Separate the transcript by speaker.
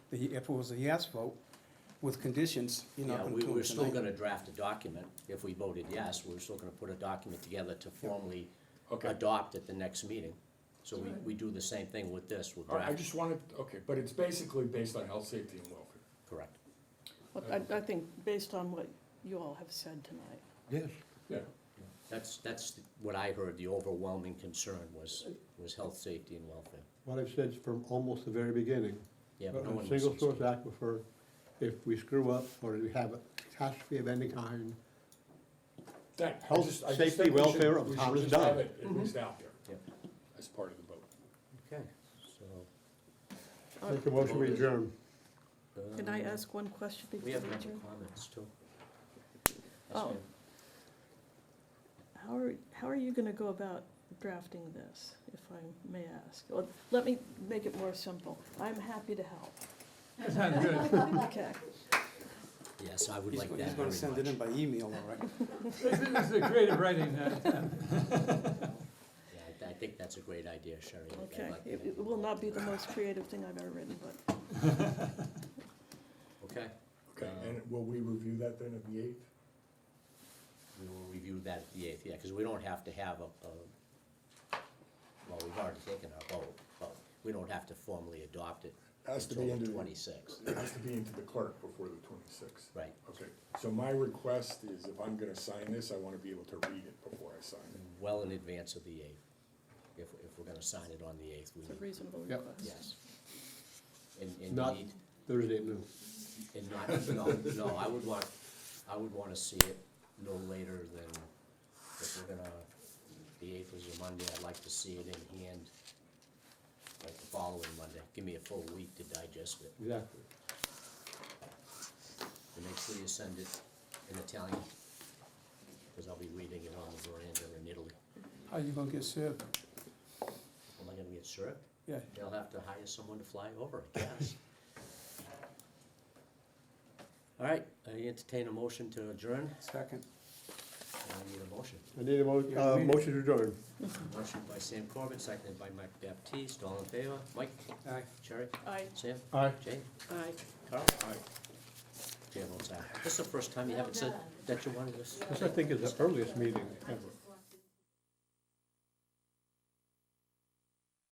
Speaker 1: the, if it was a yes vote, with conditions, you're not
Speaker 2: Yeah,
Speaker 1: gonna
Speaker 2: we,
Speaker 1: do
Speaker 2: we're
Speaker 1: it
Speaker 2: still
Speaker 1: tonight.
Speaker 2: gonna draft a document, if we voted yes, we're still gonna put a document together to formally
Speaker 3: Okay.
Speaker 2: adopt at the next meeting. So we, we do the same thing with this, we'll
Speaker 3: All right, I
Speaker 2: draft,
Speaker 3: just wanted, okay, but it's basically based on health, safety, and welfare.
Speaker 2: correct.
Speaker 4: Well, I, I think based on what you all have said tonight.
Speaker 2: Yes.
Speaker 3: Yeah.
Speaker 2: That's, that's what I heard, the overwhelming concern was, was health, safety, and welfare.
Speaker 5: What I've said is from almost the very beginning,
Speaker 2: Yeah, but no
Speaker 5: on
Speaker 2: one
Speaker 5: a
Speaker 2: listens
Speaker 5: single
Speaker 2: to
Speaker 5: source
Speaker 2: me.
Speaker 5: aquifer, if we screw up or we have a catastrophe of any kind,
Speaker 3: That, I
Speaker 5: Health,
Speaker 3: just, I just
Speaker 5: safety,
Speaker 3: think we should,
Speaker 5: welfare of
Speaker 3: we
Speaker 5: town
Speaker 3: should
Speaker 5: is
Speaker 3: just have
Speaker 5: done.
Speaker 3: it at least out there
Speaker 2: Yep.
Speaker 3: as part of the vote.
Speaker 2: Okay, so.
Speaker 5: make a motion we adjourn.
Speaker 4: Um, Can I ask one question before
Speaker 2: um, We
Speaker 4: you
Speaker 2: have member
Speaker 4: adjourn?
Speaker 2: comments too. Yes,
Speaker 4: Oh.
Speaker 2: ma'am.
Speaker 4: How are, how are you gonna go about drafting this, if I may ask? Or, let me make it more simple. I'm happy to help. Okay,
Speaker 2: Yes, I would
Speaker 1: He's
Speaker 2: like
Speaker 1: go-
Speaker 2: that
Speaker 1: he's gonna send it
Speaker 2: very
Speaker 1: in
Speaker 2: much.
Speaker 1: by email, all right?
Speaker 6: This is a creative writing. uh,
Speaker 2: Yeah, I- I think that's a great idea, Sherry. I'd
Speaker 4: okay.
Speaker 2: like
Speaker 4: It,
Speaker 2: that.
Speaker 4: it will not be the most creative thing I've ever written, but
Speaker 2: Okay,
Speaker 3: Okay,
Speaker 2: Uh,
Speaker 3: and will we review that then at the eighth?
Speaker 2: we will review that at the eighth, yeah, because we don't have to have a, a, well, we've already taken our vote, but we don't have to formally adopt it
Speaker 3: Has to
Speaker 2: until
Speaker 3: be into,
Speaker 2: the
Speaker 3: the-
Speaker 2: twenty-sixth,
Speaker 3: it has to be into the clerk before the twenty-sixth.
Speaker 2: right?
Speaker 3: Okay, so my request is if I'm gonna sign this, I wanna be able to read it before I sign it.
Speaker 2: Well in advance of the eighth. If, if we're gonna sign it on the eighth, we
Speaker 4: it's a
Speaker 2: need,
Speaker 4: reasonable
Speaker 5: Yep.
Speaker 4: request.
Speaker 2: yes. And, and
Speaker 5: Not
Speaker 2: need,
Speaker 5: Thursday at noon.
Speaker 2: and not, no, no, I would want, I would wanna see it no later than, if we're gonna, the eighth is a Monday, I'd like to see it in hand like the following Monday. Give me a full week to digest it.
Speaker 5: Exactly.
Speaker 2: And make sure you send it in Italian, because I'll be reading it on the veranda in Italy.
Speaker 1: How you gonna get served?
Speaker 2: Am I gonna get served?
Speaker 1: Yeah,
Speaker 2: They'll have to hire someone to fly over, I guess. All right, I entertain a motion to adjourn.
Speaker 1: second.
Speaker 2: I need a motion.
Speaker 5: I need a mo-
Speaker 1: Yeah,
Speaker 5: uh,
Speaker 1: we-
Speaker 5: motion to adjourn.
Speaker 2: Motion by Sam Corbett, seconded by Mike Baptiste. All in favor? Mike,
Speaker 1: Aye.
Speaker 2: Cherry,
Speaker 4: I,
Speaker 2: Sam,
Speaker 5: Aye.
Speaker 2: Jane,
Speaker 4: I.
Speaker 2: Carl? Aye. Chair votes aye. This is the first time you haven't said that you wanted to.
Speaker 5: This, I think, is the earliest meeting ever.